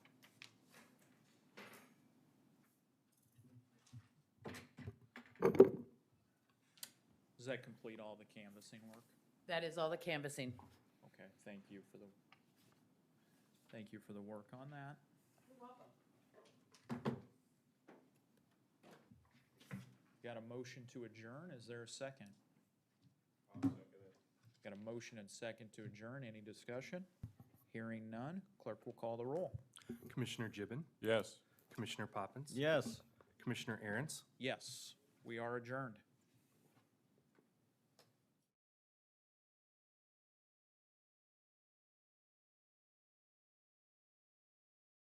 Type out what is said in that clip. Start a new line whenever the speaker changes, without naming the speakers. that complete all the canvassing work?
That is all the canvassing.
Okay, thank you for the, thank you for the work on that. Got a motion to adjourn, is there a second? Got a motion and second to adjourn, any discussion? Hearing none, clerk will call the roll.
Commissioner Gibbon,
Yes.
Commissioner Poppins.
Yes.
Commissioner Aaron's,
Yes, we are adjourned.